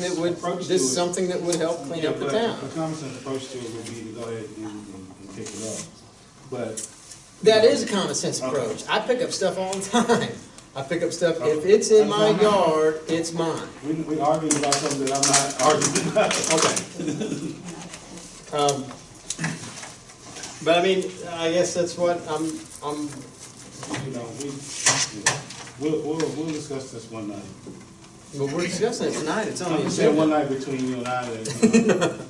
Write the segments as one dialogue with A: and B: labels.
A: That would, this
B: Approach to
A: is
B: it.
A: something that would help clean up
B: Yeah,
A: the
B: but
A: town.
B: A common sense approach to it would be to go ahead and, and and pick it up. But
A: That is a common sense
B: Okay.
A: approach. I pick up stuff all the time. I pick up stuff, if
B: Okay.
A: it's in my
B: That's fine.
A: yard, it's mine.
B: we, we argued about something that I'm not arguing
A: Okay.
B: about.
A: Um, But I mean, I guess that's what I'm, I'm,
B: You know, we, we'll, we'll, we'll discuss this one night.
A: but we're discussing it tonight, it's on
B: I'm
A: the
B: just saying one
A: agenda.
B: night between you and I, that, uh,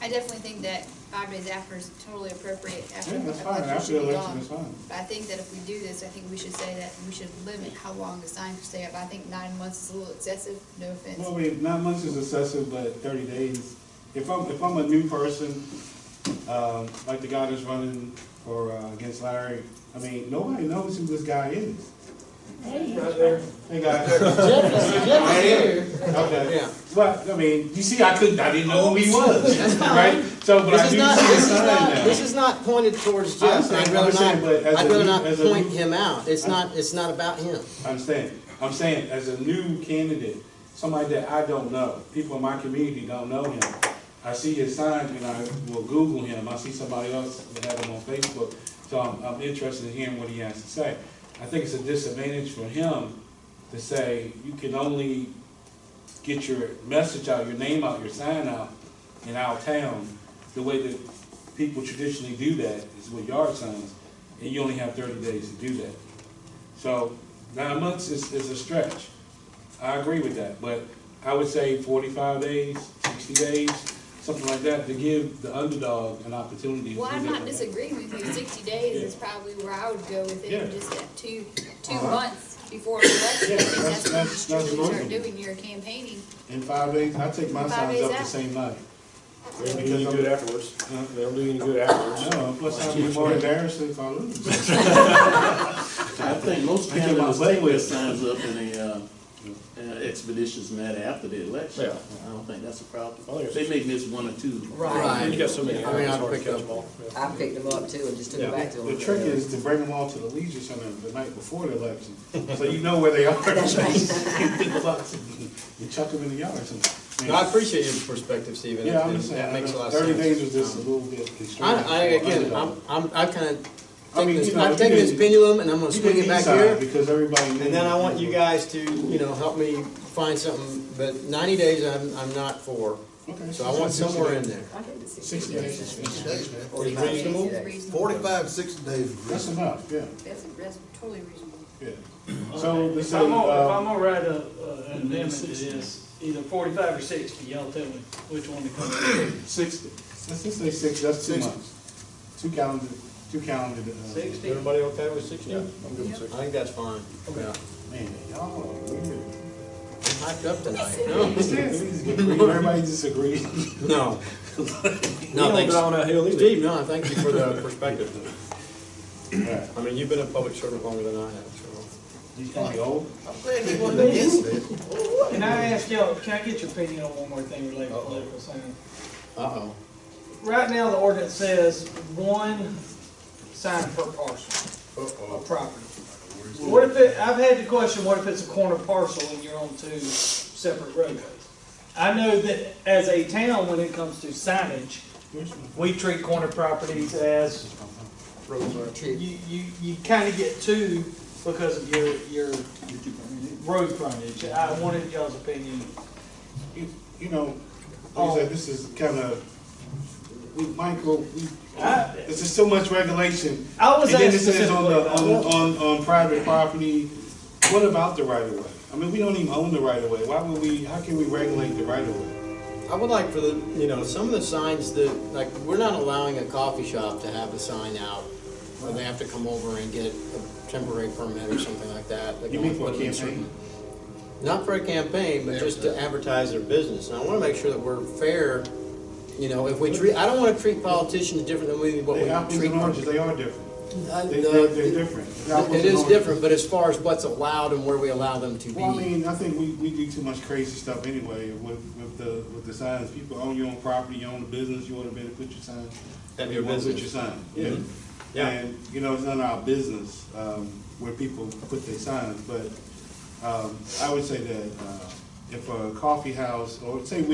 C: I definitely think that five days after is totally appropriate after
B: yeah,
C: the
B: that's fine,
C: election
B: after the
C: should be
B: election
C: gone.
B: is fine.
C: But I think that if we do this, I think we should say that we should limit how long the sign can stay up. I think nine months is a little excessive, no
B: Well,
C: offense.
B: I mean, nine months is excessive, but thirty days, if I'm, if I'm a new person, um, like the guy that's running for, uh, against Larry, I mean, nobody knows who this guy is. Hey, guy.
A: Jeff is- Jeff is here.
B: Okay.
A: Yeah.
B: Well, I mean, you see, I couldn't, I didn't know who he was, right? So, but I
A: This is
B: do see
A: not,
B: the
A: this is
B: sign
A: not,
B: now.
A: this is not pointed towards Jeff, and I'd rather not,
B: understand- understand, but as a
A: I'd rather
B: new-
A: not
B: as a
A: point
B: new-
A: him out. It's
B: I-
A: not, it's not about him.
B: I understand. I'm saying, as a new candidate, somebody that I don't know, people in my community don't know him. I see his signs and I will Google him. I see somebody else that had him on Facebook, so I'm, I'm interested in hearing what he has to say. I think it's a disadvantage for him to say, you can only get your message out, your name out, your sign out in our town, the way that people traditionally do that is with yard signs, and you only have thirty days to do that. So nine months is, is a stretch. I agree with that, but I would say forty-five days, sixty days, something like that, to give the underdog an opportunity. to
C: Well,
B: do
C: I'm
B: that.
C: not disagreeing with you. Sixty days is
B: Yeah.
C: probably where I would go with
B: Yeah.
C: it, just at two, two
B: Uh-huh.
C: months before the election.
B: Yeah,
C: I
B: that's-
C: think that's when
B: that's-
C: you
B: that's
C: should start
B: reasonable.
C: doing your campaigning.
B: In five days, I take my
C: Five
B: signs
C: days
B: up the
C: out.
B: same night.
D: They don't do any good afterwards.
B: Huh?
D: They don't do any good afterwards.
B: No, plus I'd be more embarrassed if I lose.
E: I think most
B: I get my
E: candidates
B: way
E: take
B: with it.
E: their signs up in a, uh, in a expeditious manner after the election. I don't think that's a
B: Oh,
D: I think
E: problem.
D: it's-
E: They may miss one, or two.
F: Right.
D: You got so many.
A: I mean,
D: hours,
A: I
D: it's hard to
A: picked
D: catch
A: up-
D: them all.
F: I picked them up too and just took them back to them.
B: The trick is to bring them all to the Leisure Center the night before the election, so you know where they are. You chuck them in the yard or something.
G: No, I appreciate your perspective, Stephen.
B: Yeah, I'm
G: and-
B: just
G: and
B: saying, uh,
G: That makes a lot of sense.
B: thirty days was just a little bit
A: I,
B: constrained.
A: I, again, I'm, I'm, I kinda
B: I
A: take
B: mean,
A: this,
B: you know,
A: I'm
B: you
A: taking this
B: didn't-
A: pendulum and I'm gonna
B: You
A: swing
B: didn't
A: it back
B: decide
A: here.
B: Because everybody. knew
A: And then I want you
B: were-
A: guys to, you know, help me find something, but ninety days I'm, I'm not for,
B: Okay,
A: so I want somewhere in there.
B: Sixty days, is- is-
C: Reasonable?
H: Forty-five, sixty days.
B: that's enough, yeah,
C: That's, that's totally reasonable.
B: yeah. So, they
I: If
B: say,
I: I'm gonna, if I'm
B: uh,
I: gonna write a, a- an amendment to this, either forty-five or sixty, y'all tell me which one to come up with.
B: sixty, let's just say six, that's two
H: Six.
B: months, two calendar, two calendar, uh,
I: Sixty?
D: Everybody okay with sixty?
A: Yeah.
D: I'm good with
A: I
D: sixty.
A: think that's fine. Yeah.
B: man, y'all are weird.
A: I'm hyped up tonight. No,
B: Everybody disagrees.
A: no.
D: We
G: No,
D: don't
G: thanks.
D: die on that hill either.
G: Steve, no, I thank you for the perspective.
B: Right.
G: I mean, you've been a public servant longer than I have, so.
B: You think you old?
H: I'm glad he wasn't against it.
I: Can I ask y'all, can I get your opinion on one more thing related to political signs?
A: Uh-oh.
I: Right now, the ordinance says one sign per parcel of property. What if it, I've had the question, what if it's a corner parcel and you're on two separate roadways? I know that as a town, when it comes to signage, we treat corner properties as you, you, you kind of get two because of your, your road frontage. I wanted y'all's opinion.
B: You you know, like I said, this is kind of, we, Michael, we,
I: I-
B: there's just so much regulation.
I: I was
B: And then
I: asked
B: it says on the,
I: specifically
B: on, on, on private property, what about the right of way? I mean, we don't even own the right of way, why would we, how can we regulate the right of way?
A: I would like for the, you know, some of the signs that, like, we're not allowing a coffee shop to have a sign out. Or they have to come over and get a temporary permit or something like that. They
B: You
A: can
B: mean for a
A: only put it in certain-
B: campaign?
A: Not for a campaign, but just to advertise their business. And I wanna make sure that we're fair, you know, if we treat, I don't wanna treat politicians different than we, what we
B: They apples
A: treat.
B: and oranges, they are different.
A: I-
B: They,
A: uh,
B: they're, they're different. They're apples
A: It
B: and
A: is
B: oranges.
A: different, but as far as what's allowed and where we allow them to
B: Well, I
A: be.
B: mean, I think we, we do too much crazy stuff anyway with, with the, with the signs. People own your own property, you own a business, you wanna be able to put your sign.
G: Have your
B: you wanna
G: business.
B: Put your sign, yeah.
G: Yeah.
B: And, you know, it's none of our business, um, where people put their signs, but, um, I would say that, uh, if a coffee house, or say we